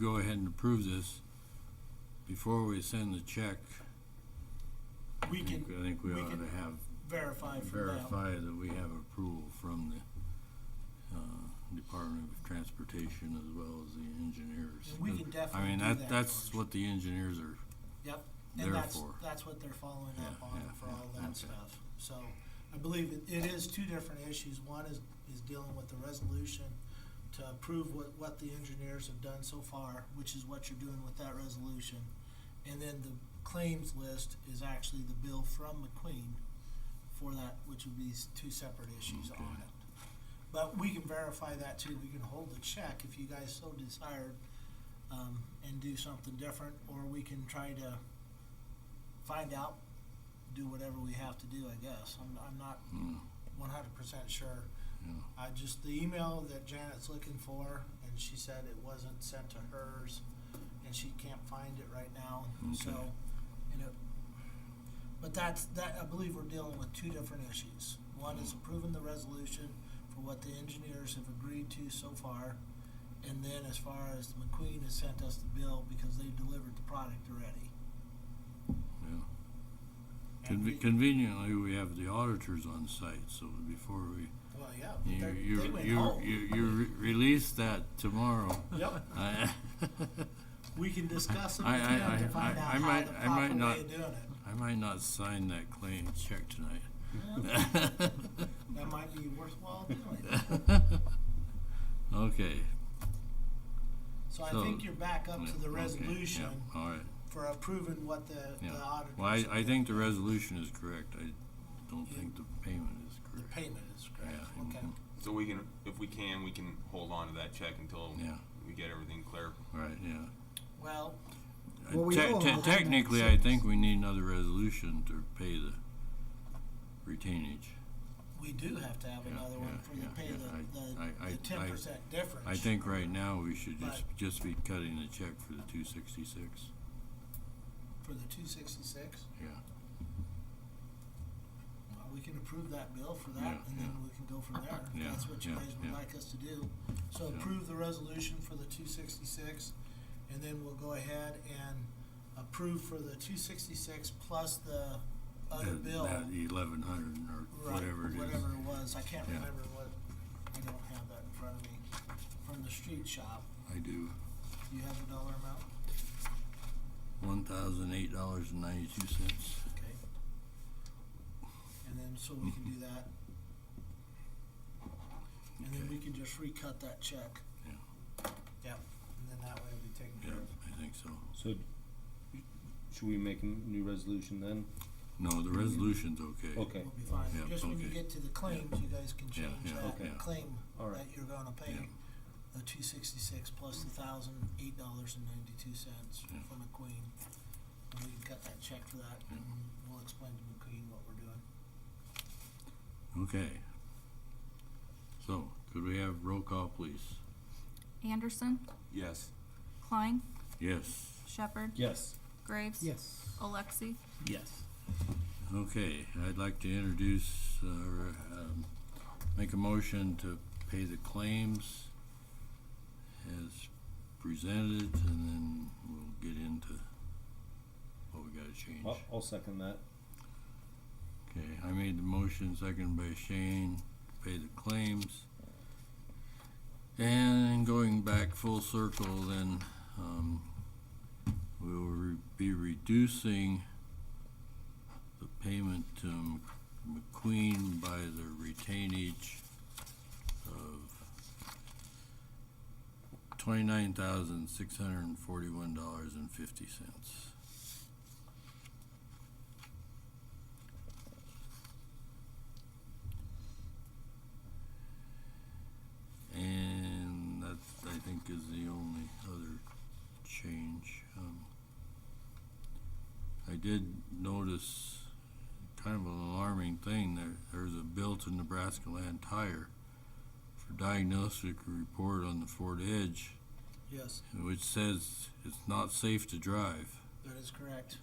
go ahead and approve this before we send the check. I We think, can I think we we ought can to have, verify for them. verify that we have approval from the, uh, Department of Transportation as well as the engineers. And we can I mean, definitely do that, that, that's George. what the engineers are, Yep, and that's, therefore- that's what they're following up Yeah, on yeah, for yeah, all okay. that stuff. So I believe it, it is two different issues. One is, is dealing with the resolution to approve what, what the engineers have done so far, which is what you're doing with that resolution. And then the claims list is actually the bill from McQueen for that, which would be s- two separate issues Okay. on it. But we can verify that too. We can hold the check if you guys so desired, um, and do something different, or we can try to find out, do whatever we have to do, I guess. I'm, I'm not mm, one hundred percent sure. you know. I just, the email that Janet's looking for, and she said it wasn't sent to hers, and she can't find it right now, so, Okay. and it, but that's, that, I believe we're dealing with two different issues. One is approving the resolution for what the engineers have agreed to so far, and then as far as McQueen has sent us the bill because they've delivered the product already. Yeah. And we- Conve- Conveniently, we have the auditors on site, so before we, Well, yeah, you, they're- they you, went you, home. you, you re- release that tomorrow. Yep. I- We can discuss it I- with I- them to I- find I- out I how might- the I might proper not- way of doing it. I might not sign that claim check tonight. That might be worthwhile doing. Okay. So I So- think you're back up yeah, to the okay, resolution yeah, All right, for approving what the, the yeah. auditors. Well, I, I think the resolution is correct. I don't Yeah. think the payment is The correct. payment is correct, Yeah, okay. mhm. So we can, if we can, we can hold on to that check until Yeah. we get everything clear. Right, yeah. Well, Uh, Well, we te- owe te- a hundred Technically, I six. think we need another resolution to pay the retainage. we do have to have Yeah, another one yeah, for the yeah, pay yeah, I- the, I- the, I- the ten percent difference. I think right now we should just, Right. just be cutting the check for the two sixty-six. For the two sixty-six, Yeah, we can approve that bill for Yeah, that and then yeah. we can go from there. Yeah, That's what you yeah, guys would yeah. like us to do. So Yeah. approve the resolution for the two sixty-six and then we'll go ahead and approve for the two sixty-six plus the other That- bill. That eleven hundred or Right, whatever it is. Whatever it was, I can't Yeah. remember what, I don't have that in front of me, from the street shop, I do. do you have the dollar amount? One thousand eight dollars and ninety-two cents. Okay. And then, so we can do that. And then Okay. we can just recut that check. Yeah. Yep, and then that way it'll be taken Yeah, care of. I think so. So, should we make a new resolution then? No, the resolution's okay. Okay, We'll be fine, Yeah, just when you okay. get to the claims, you guys can Yeah, change yeah, that okay. claim All that right. you're gonna pay. Yeah. The two sixty-six plus the thousand eight dollars and ninety-two cents Yeah. from McQueen. And we can cut that check for that Yeah. and we'll explain to McQueen what we're doing. Okay. So, could we have roll call, please? Anderson, Yes. Klein, Yes. Shepherd, yes. Graves, Yes. Alexi, Yes. Okay, I'd like to introduce, uh, or, um, make a motion to pay the claims as presented, and then we'll get into what we gotta change. I'll, I'll second that. Okay, I made the motion, seconded by Shane, to pay the claims. And going back full circle, then, um, we will re- be reducing the payment to M- McQueen by the retainage of twenty-nine thousand, six hundred and forty-one dollars and fifty cents. And that, I think, is the only other change. Um, I did notice kind of an alarming thing, there, there's a bill to Nebraska Land Tire for diagnostic report on the Ford Edge, Yes, which says it's not safe to drive. that is correct.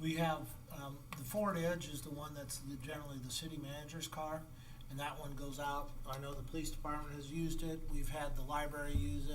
We have, um, the Ford Edge is the one that's the- generally the city manager's car, and that one goes out. I know the police department has used it, we've had the library use it.